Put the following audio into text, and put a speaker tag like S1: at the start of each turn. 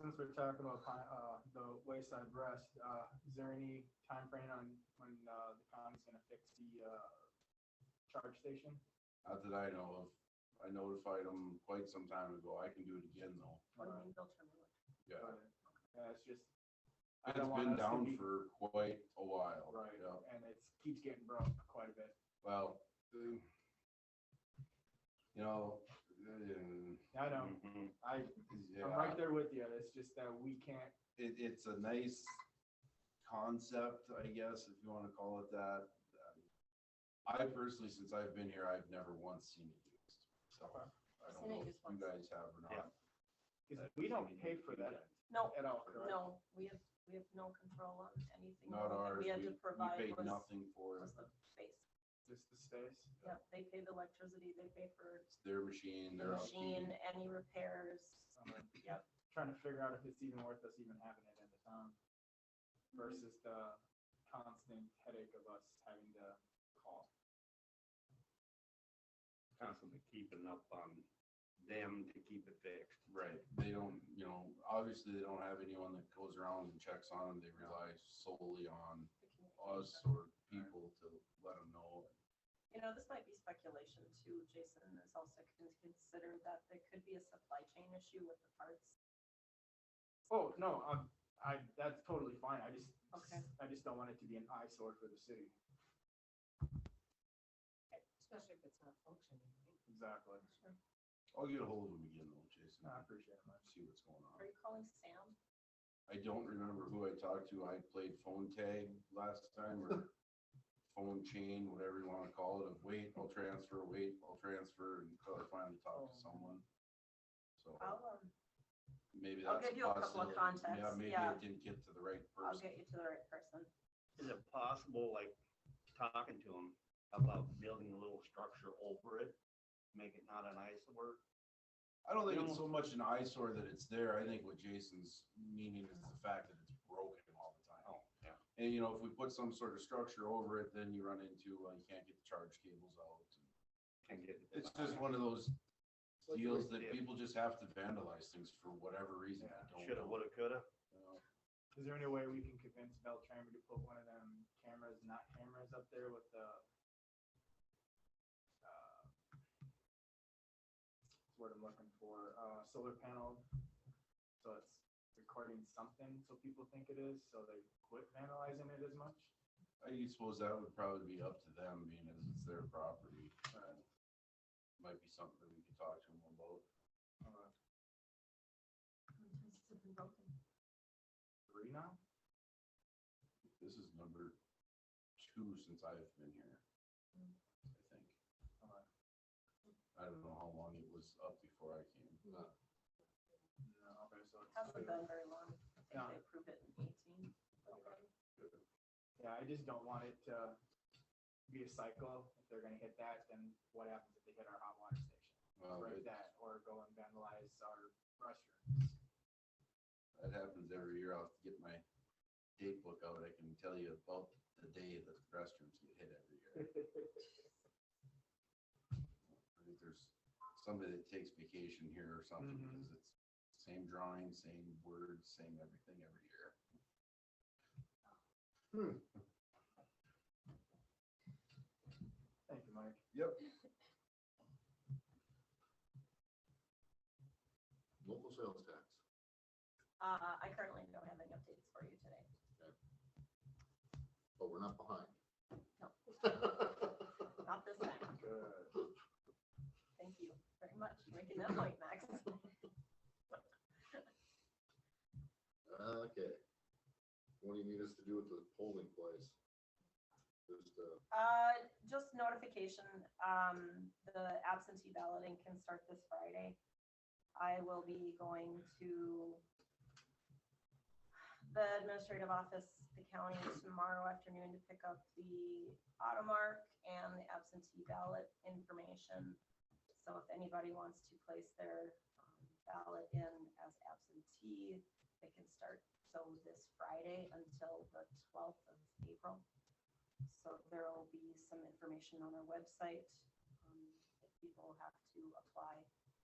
S1: Since we're talking about, pi- uh, the wayside rest, uh, is there any timeframe on, when, uh, the county's gonna fix the, uh, charge station?
S2: Not that I know of. I notified them quite some time ago. I can do it again though.
S1: Or,
S3: What do you mean they'll turn it on?
S2: Yeah.
S1: uh, Yeah, it's just. I
S2: It's
S1: don't want
S2: been
S1: us to
S2: down
S1: be-
S2: for quite a while.
S1: Right,
S2: Yeah.
S1: and it keeps getting broke quite a bit.
S2: Well, the- you know. uh,
S1: I know,
S2: mhm,
S4: Mm-hmm.
S1: I, I'm
S2: Yeah,
S1: right there with you, it's just that we can't,
S2: it, it's a nice concept, I guess, if you want to call it that. I personally, since I've been here, I've never once seen it used. So I
S3: Seen
S2: don't
S3: it
S2: know if
S3: used
S2: you
S3: once.
S2: guys have or not.
S1: cause we don't pay for that
S3: No,
S1: at all, correct?
S3: no, we have, we have no control on anything. The
S2: Not
S3: only thing
S2: ours.
S3: We had to provide
S2: paid
S3: was,
S2: Nothing for it.
S3: was the space.
S1: Just the space.
S3: Yep, they pay the electricity, they pay for
S2: It's their machine,
S3: the
S2: their
S3: machine,
S2: upkeep.
S3: any repairs.
S1: I'm
S3: Yep.
S1: Trying to figure out if it's even worth us even having it in the town versus the constant headache of us having to call.
S4: constantly keeping up on them to keep it fixed.
S2: Right, they don't, you know, obviously they don't have anyone that goes around and checks on them. They rely solely on
S3: the
S2: us
S3: communication.
S2: or people to let them know.
S3: You know, this might be speculation too, Jason, is also con- considered that there could be a supply chain issue with the parts.
S1: Oh, no, I'm, I, that's totally fine. I just,
S3: Okay.
S1: I just don't want it to be an eyesore for the city.
S5: Especially if it's not functioning. right?
S1: Exactly.
S2: I'll get a hold of them again though, Jason,
S1: I
S2: and
S1: appreciate it, man.
S2: see what's going on.
S3: Are you calling Sam?
S2: I don't remember who I talked to. I played phone tag last time or phone chain, whatever you wanna call it, of wait, I'll transfer, wait, I'll transfer until I finally talk to someone. So
S3: Oh. I'll, um,
S2: maybe
S3: I'll
S2: that's a
S3: give you a couple of
S2: possibility. Yeah,
S3: contacts,
S2: maybe
S3: yeah.
S2: I didn't get to the right
S3: I'll
S2: person.
S3: get you to the right person.
S4: Is it possible, like, talking to them about building a little structure over it, make it not an eyesore?
S2: I don't think
S4: You
S2: it's
S4: know-
S2: so much an eyesore that it's there. I think what Jason's meaning is the fact that it's broken all the time.
S4: Oh, yeah.
S2: And you know, if we put some sort of structure over it, then you run into, uh, you can't get the charge cables out.
S4: Can get. it.
S2: It's just one of those
S4: Like
S2: deals
S4: we
S2: that
S4: did.
S2: people just have to vandalize things for whatever reason. I don't
S4: Shoulda,
S2: know.
S4: woulda, coulda.
S2: Uh,
S1: Is there any way we can convince Beltrami to put one of them cameras, not cameras up there with the? uh, what's the Word I'm looking for, uh, solar panel, so it's recording something, so people think it is, so they quit vandalizing it as much.
S2: I suppose that would probably be up to them, being as it's their property.
S1: Right.
S2: Might be something that we could talk to them about.
S1: Uh,
S3: It's been broken.
S1: Three now?
S2: This is number two since I've been here, I think.
S1: Uh,
S2: I don't know how long it was up before I came.
S1: No, okay, so it's
S3: Hasn't
S1: two.
S3: been very long. I
S1: No.
S3: think they approved it in eighteen.
S1: Yeah, I just don't want it to be a cycle. If they're gonna hit that, then what happens if they hit our hot water station?
S2: Well,
S1: Or
S2: it,
S1: that, or go and vandalize our restroom.
S2: that happens every year. I'll get my date book out. I can tell you about the day that the restrooms get hit every year. I think there's somebody that takes vacation here or something
S1: Mhm.
S2: because it's same drawing, same words, same everything every year.
S1: Thank you, Mike.
S2: Yep. Local sales tax.
S3: Uh, I currently don't have any updates for you today.
S6: but we're not behind.
S3: No. Not this time.
S1: Good.
S3: Thank you very much for making that point, Max.
S6: Okay. What do you need us to do with the polling place? Just, uh,
S3: Uh, just notification, um, the absentee balloting can start this Friday. I will be going to the administrative office, the county tomorrow afternoon to pick up the automark and the absentee ballot information. So if anybody wants to place their um, ballot in as absentee, they can start so this Friday until the twelfth of April. So there will be some information on our website. um, that People have to apply